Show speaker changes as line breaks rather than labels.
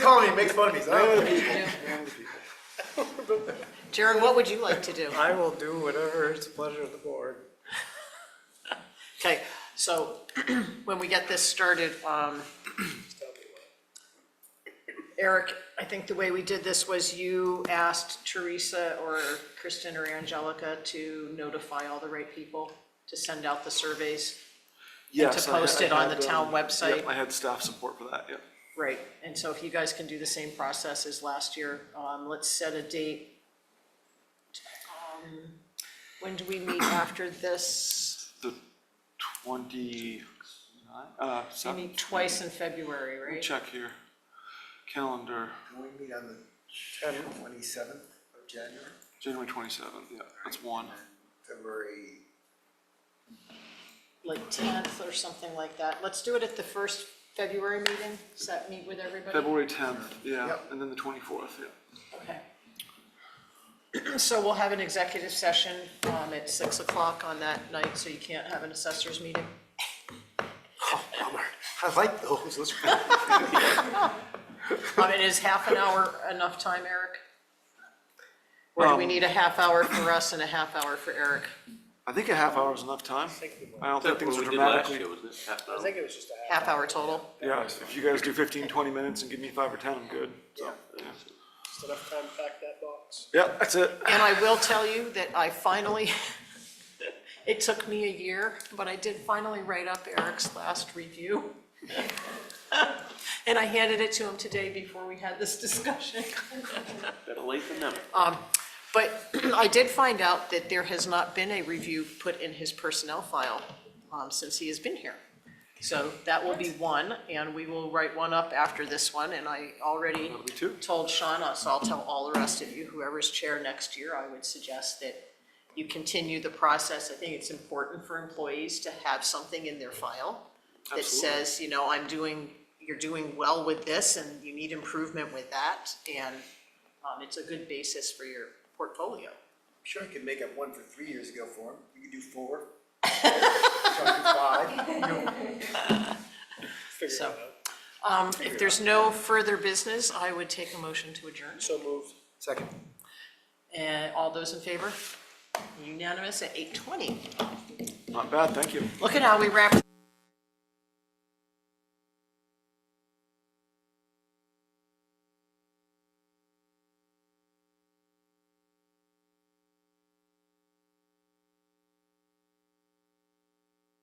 on me, makes fun of me. so I don't-
Jared, what would you like to do?
I will do whatever is pleasure of the board.
Okay, so when we get this started, um, Eric, I think the way we did this was you asked Teresa or Kristen or Angelica to notify all the right people to send out the surveys.
Yes,
to
I- I
post it on
had,
the town
um,
website.
yep, I had staff support for that, yeah.
Right, and so if you guys can do the same process as last year, um, let's set a date. Um, When do we meet after this?
The twenty, uh,
We
seven,
meet twice in February, right?
check here, calendar,
Can we meet on the twenty-seventh of January,
January twenty-seventh, yeah, that's one.
February?
Like tenth or something like that. Let's do it at the first February meeting. Does that meet with everybody?
February tenth, yeah,
Yep.
and then the twenty-fourth, yeah.
Okay. So we'll have an executive session, um, at six o'clock on that night, so you can't have an assessors meeting.
I like those, those are
I mean, is half an hour enough time, Eric? Or do we need a half hour for us and a half hour for Eric?
I think a half hour is enough time. I don't think things are dramatically,
I think it was just a
Half hour total?
yeah, if you guys do 15, 20 minutes and give me five or ten, I'm good, so. yeah.
half, enough time to pack that box.
Yeah, that's it.
And I will tell you that I finally, it took me a year, but I did finally write up Eric's last review. And I handed it to him today before we had this discussion.
Better late than never.
But I did find out that there has not been a review put in his personnel file um, since he has been here. So that will be one, and we will write one up after this one, and I already
be two.
told Sean, uh, so I'll tell all the rest of you, whoever's chair next year, I would suggest that you continue the process. I think it's important for employees to have something in their file that
Absolutely.
says, you know, I'm doing, you're doing well with this, and you need improvement with that, and um, it's a good basis for your portfolio.
Sure, I could make up one for three years ago for him, you could do four. Try to do Five, you know,
Figure it
So-
out.
Um, if there's no further business, I would take a motion to adjourn.
So moved.
second.
And all those in favor? Unanimous at eight twenty.
Not bad, thank you.
Look at how we wrapped.